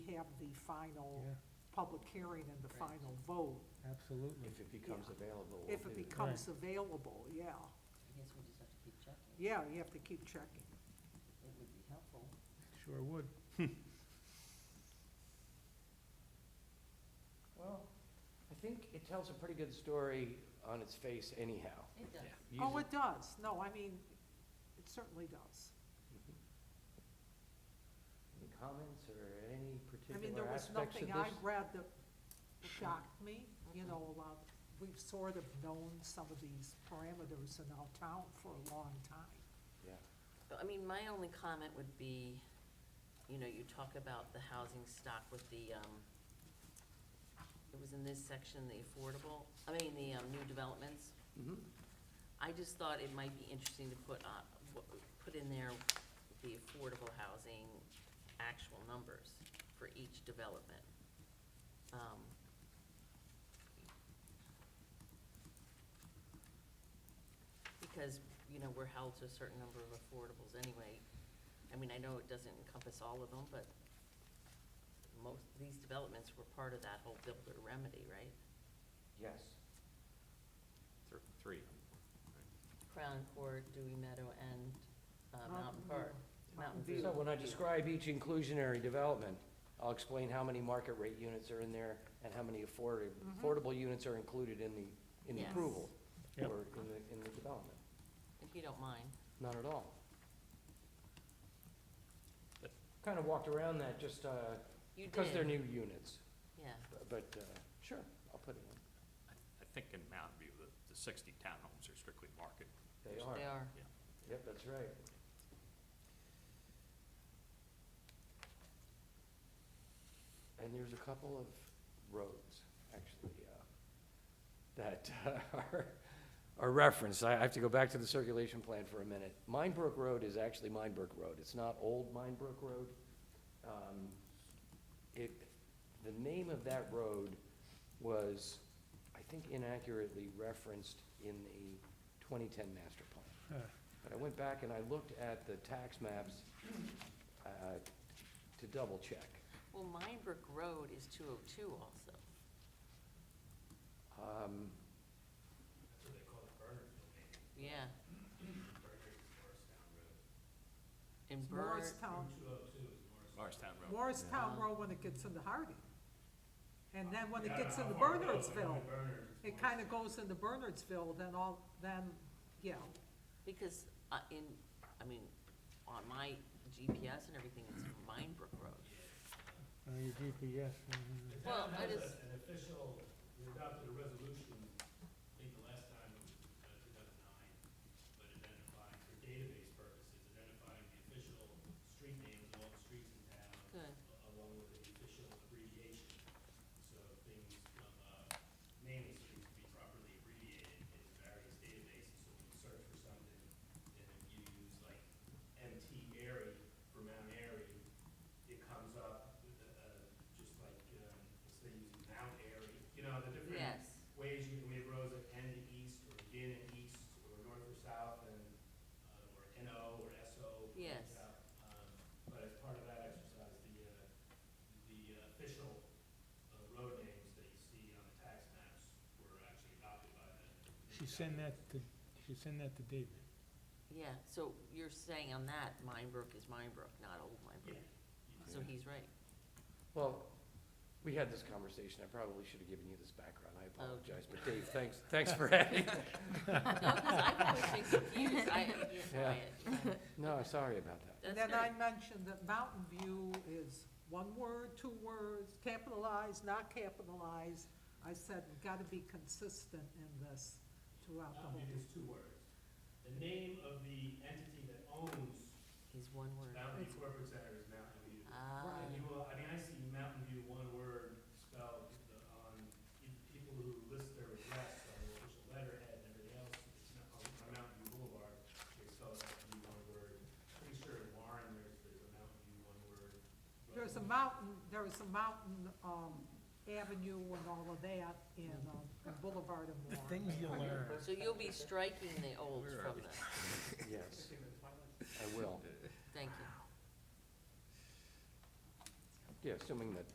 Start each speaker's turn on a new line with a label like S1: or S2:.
S1: have the final
S2: Yeah,
S1: public hearing and the
S3: Right.
S1: final vote,
S2: absolutely.
S4: If it becomes available.
S1: if
S4: we'll
S1: it
S4: do
S1: becomes available, yeah.
S3: I guess we just have to keep checking.
S1: Yeah, you have to keep checking.
S3: It would be helpful.
S2: Sure would.
S4: Well, I think it tells a pretty good story on its face anyhow.
S3: It does.
S1: Oh, it does, no, I mean, it certainly does.
S4: Mhm. Any comments or any
S1: I mean, there
S4: particular
S1: was
S4: aspects of
S1: nothing
S4: this?
S1: I read that shocked me, you know, a lot, we've sort of known some of these parameters in our town for a long time.
S4: Yeah,
S5: But, I mean, my only comment would be, you know, you talk about the housing stock with the, um, it was in this section, the affordable, I mean, the, um, new developments.
S4: Mhm.
S5: I just thought it might be interesting to put on, what- put in there the affordable housing actual numbers for each development. Um, Because, you know, we're held to a certain number of affordables anyway. I mean, I know it doesn't encompass all of them, but most, these developments were part of that whole builder remedy, right?
S4: yes.
S6: Thr- Three.
S5: Crown Court, Dewey Meadow, and uh, Mountain
S1: Mountain
S5: Park.
S1: View.
S5: Mountain
S1: Mountain
S5: View.
S4: So when I describe each inclusionary development, I'll explain how many market rate units are in there and how many affordable,
S1: Mm-hmm.
S4: affordable units are included in the, in the
S5: Yes.
S4: approval
S2: Yep.
S4: or in the, in the development.
S5: If you don't mind.
S4: Not at all. Kind of walked around that just, uh,
S5: You did.
S4: because they're new units,
S5: Yeah,
S4: but, uh, sure, I'll put it in.
S6: I I think in Mountain View, the, the sixty townhomes are strictly market.
S4: They are.
S5: they are.
S4: Yep, that's right. And there's a couple of roads, actually, uh, that uh, are, are referenced. I I have to go back to the circulation plan for a minute. Minebrook Road is actually Minebrook Road. It's not Old Minebrook Road. Um, It, the name of that road was, I think inaccurately referenced in the 2010 master plan.
S2: Huh.
S4: But I went back and I looked at the tax maps uh, to double check.
S5: Well, Minebrook Road is 202 also.
S4: Um,
S5: Yeah. In Bernard,
S1: Morristown,
S6: Morristown Road.
S1: Morristown Road when it gets into Hardy. And then when it gets into Bernardsville, it kinda goes into Bernardsville, then all, then, yeah,
S5: because uh, in, I mean, on my GPS and everything, it's Minebrook Road.
S2: Uh, Your GPS,
S7: The
S2: mhm.
S5: Well,
S7: town
S5: I
S7: has
S5: just-
S7: a- an official, we adopted a resolution, I think the last time, uh, two thousand nine, but identifying for database purposes, identifying the official street names of all the streets in town,
S5: Good.
S7: a- along with the official abbreviation. So things from, uh, names that need to be properly abbreviated in various databases, so when you search for something, and if you use like MT Airy for Mount Airy, it comes up, uh, uh, just like, um, instead of using Mount Airy, you know, the different
S5: Yes.
S7: ways you can, we have roads that end in east, or begin in east, or north or south, and, uh, or NO or SO. comes
S5: Yes.
S7: out. Um, But as part of that exercise, the, uh, the uh, official uh, road names that you see on the tax maps were actually adopted by the.
S2: She send that to, she send that to David.
S5: Yeah, so you're saying on that, Minebrook is Minebrook, not Old
S7: Yeah.
S5: Minebrook.
S7: you
S5: So
S7: know.
S5: he's right.
S4: Well, we had this conversation, I probably should have given you this background, I apologize, but Dave, thanks, thanks for adding.
S5: No, 'cause I've always been confused. I, yeah, I-
S4: No, sorry about that.
S5: that's
S1: And then I
S5: good.
S1: mentioned that Mountain View is one word, two words, capitalized, not capitalized. I said, we've gotta be consistent in this throughout the
S7: Mountain
S1: whole.
S7: View is two words. The name of the entity that owns
S5: He's one word.
S7: Mountain View Corporate Center is Mountain View.
S5: Ah,
S7: And you will, I mean, I see Mountain View one word spelled the- on, pe- people who list their address on the official letterhead and everything else, it's not, on on Mountain View Boulevard, they spell Mountain View one word. Pretty sure in Warren, there's, there's a Mountain View one word. road.
S1: There's a mountain, there is a mountain, um, avenue and all of that in, um, in Boulevard and Warren.
S2: Things you learn.
S5: so you'll be striking the old
S6: Where
S5: from
S6: are we?
S5: this.
S4: Yes, I will.
S5: Thank you.
S4: Yeah, assuming that